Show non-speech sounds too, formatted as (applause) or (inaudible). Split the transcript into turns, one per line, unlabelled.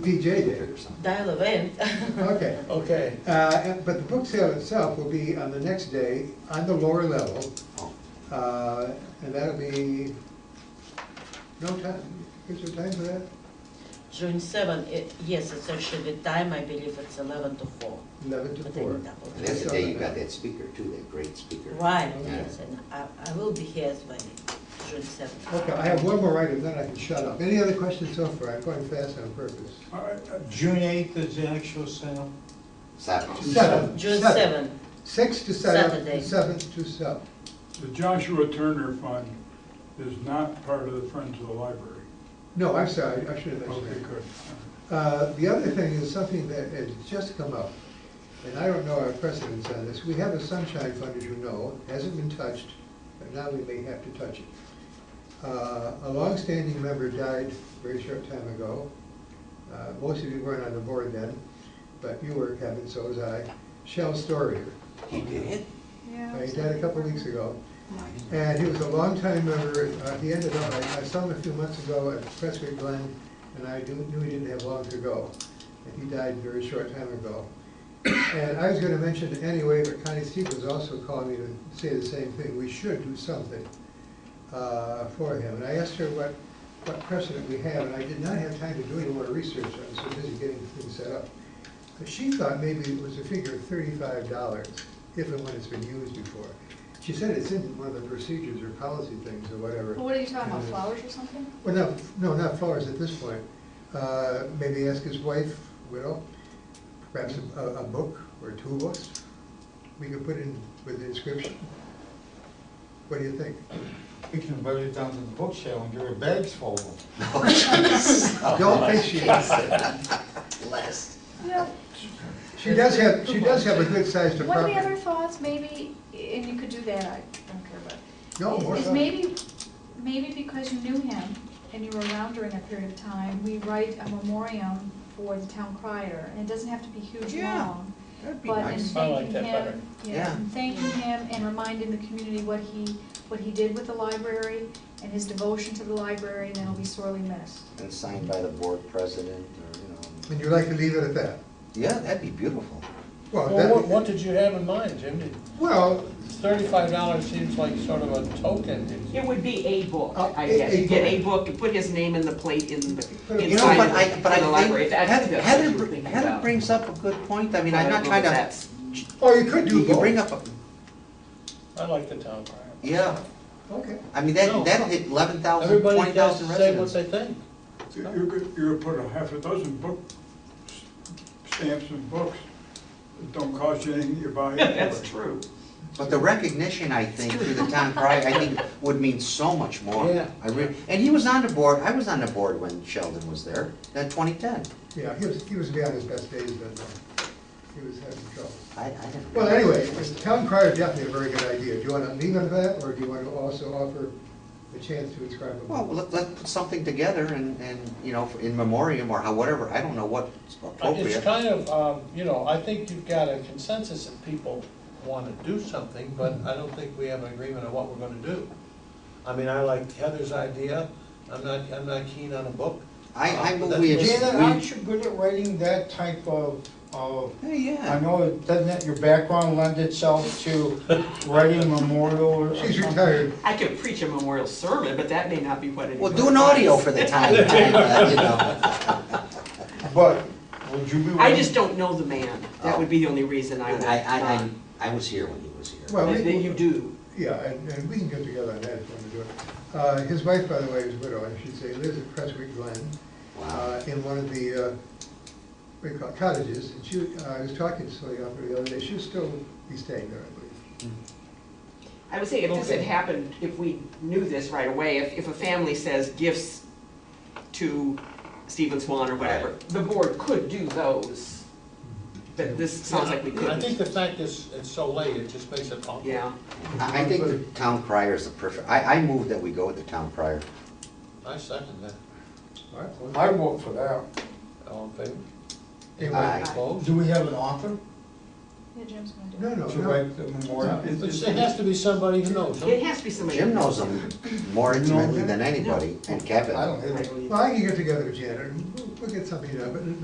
DJ Day or something.
Dial event.
Okay.
Okay,
Uh, and- But the book sale itself will be on the next day, on the lower level. Uh, And that'll be, no time, is there time for that?
(laughs) June seven, it, yes, it's actually the time, I believe it's eleven to four.
Eleven to
But
four.
then double.
And that's the day you got that speaker too, that great speaker.
Right,
Okay.
yes, and I, I will be here as well, June seventh.
Okay, I have one more item, then I can shut up. Any other questions so far? I'm going fast on purpose.
All right, uh, June eighth is the actual sale.
Seven.
Seven.
June seventh,
Six to seven,
Saturday.
and seven to seven.
The Joshua Turner Fund is not part of the Friends of the Library. Oh,
No, I'm sorry, I should have mentioned
Okay,
that.
good.
Uh, The other thing is something that has just come up, and I don't know our precedence on this. We have a sunshine fund, as you know, hasn't been touched, but now we may have to touch it. Uh, A longstanding member died a very short time ago. Uh, Most of you weren't on the board then, but you were, Kevin, so was I. Shell Storier.
He (laughs) did?
Uh, He died a couple weeks ago. And he was a longtime member, uh, he ended up, I, I saw him a few months ago at Prescott Glen, and I knew, knew he didn't have long to go. And he died a very short time ago. And I was gonna mention it anyway, but Connie Steve was also calling me to say the same thing, we should do something, uh, for him. And I asked her what, what precedent we have, and I did not have time to do any more research, I was so busy getting things set up. But she thought maybe it was a figure of thirty-five dollars, if and when it's been used before. She said it's in one of the procedures or policy things or whatever.
Well, What are you talking about, flowers or something?
Well, no, no, not flowers at this point. Uh, Maybe ask his wife, widow, perhaps a, a book or two books. We could put in with the inscription. What do you think?
We can vote it down to the book sale and give her bags full of them.
Oh,
Don't think she,
Blessed.
Yeah.
she does have, she does have a good sized
One of
apartment.
the other thoughts, maybe, and you could do that, I don't care about.
No, more
Is
thought.
maybe, maybe because you knew him and you were around during that period of time, we write a memoriam for the town crier, and it doesn't have to be huge
Yeah,
long.
that'd be
But in
nice. I like
thanking
that better.
him,
Yeah.
yeah, in thanking him and reminding the community what he, what he did with the library and his devotion to the library, and that'll be sorely missed.
And signed by the board president or, you know.
And you like to leave it at that?
Yeah, that'd be beautiful.
Well,
Well, what,
that,
what did you have in mind, Jim?
well,
Thirty-five dollars seems like sort of a token.
It would be a book,
Oh,
I
a-
guess,
a
you get a
book.
book, you put his name in the plate in the,
You
You know, but
inside
I,
of
but
the- in the
I
library,
think
that's,
Heather,
that's what
Heather,
you're
br-
thinking
Heather
about.
brings up a good point. I mean,
I
I'm
don't
not
know
trying
that
to,
that's-
or oh, you could do
you
both.
you bring up, a
I like the town crier.
yeah,
Okay.
I mean, that,
No.
that'll hit eleven thousand,
Everybody
twenty
does
thousand
say what
residents.
they think.
You, you could, you could put a half a dozen book s- stamps and books that don't cost you anything, you buy. it.
That's true.
But the recognition, I think, through the town crier, I think, would mean so much more.
Yeah.
I re, and he was on the board, I was on the board when Sheldon was there, that twenty-ten.
Yeah, he was, he was beyond his best days then, though. He was having trouble.
I, I didn't.
Well, anyway, town crier, definitely a very good idea. Do you want to leave on that, or do you want to also offer a chance to inscribe a
Well,
book?
let, let's put something together and, and, you know, in memoriam or how, whatever, I don't know what's
It's
appropriate.
kind of, um, you know, I think you've got a consensus that people wanna do something, but I don't think we have an agreement on what we're gonna do. I mean, I like Heather's idea, I'm not, I'm not keen on a book.
I, I
Uh,
move
that's-
we,
Janet, aren't
we,
you good at writing that type of, of,
yeah,
I
yeah.
know, it doesn't it- your background lend itself to writing a memorial or something?
She's retired.
I could preach a memorial sermon, but that may not be what it is.
Well, do an audio for the town, uh, you know.
But would you be willing?
I just don't know the man, that would be the only reason I would.
And Oh. I, I,
uh,
I, I was here when he was here.
Well,
That that you do.
Yeah, and, and we can get together on that if you want to do it. Uh, his wife, by the way, is widow, I should say, lives at Prestwick Glen,
Wow.
uh, in one of the, uh, what do you call it, cottages. And she, uh, I was talking to Celia Upper the other day, she'll still be staying there, I believe.
I would say if this had
Okay.
happened, if we knew this right away, if, if a family says gifts to Stephen Swan or whatever, the board could do those. But this sounds like we
I think
couldn't,
the fact is, it's so late, it just makes it awkward.
yeah.
I, I think the town crier is the perfect, I, I move that we go with the town crier.
I second that.
All right, well,
I vote for that.
All in favor?
anyway,
Aye.
Opposed?
Do we have an author?
Yeah, Jim's gonna do it.
No, no,
to
no.
write the memorial.
It just- it has to be somebody who knows.
It has to be somebody.
Jim knows them more intimately than anybody, and Kevin.
I don't think
Right.
Well, I can get together with Janet, and we'll- we'll get something done, but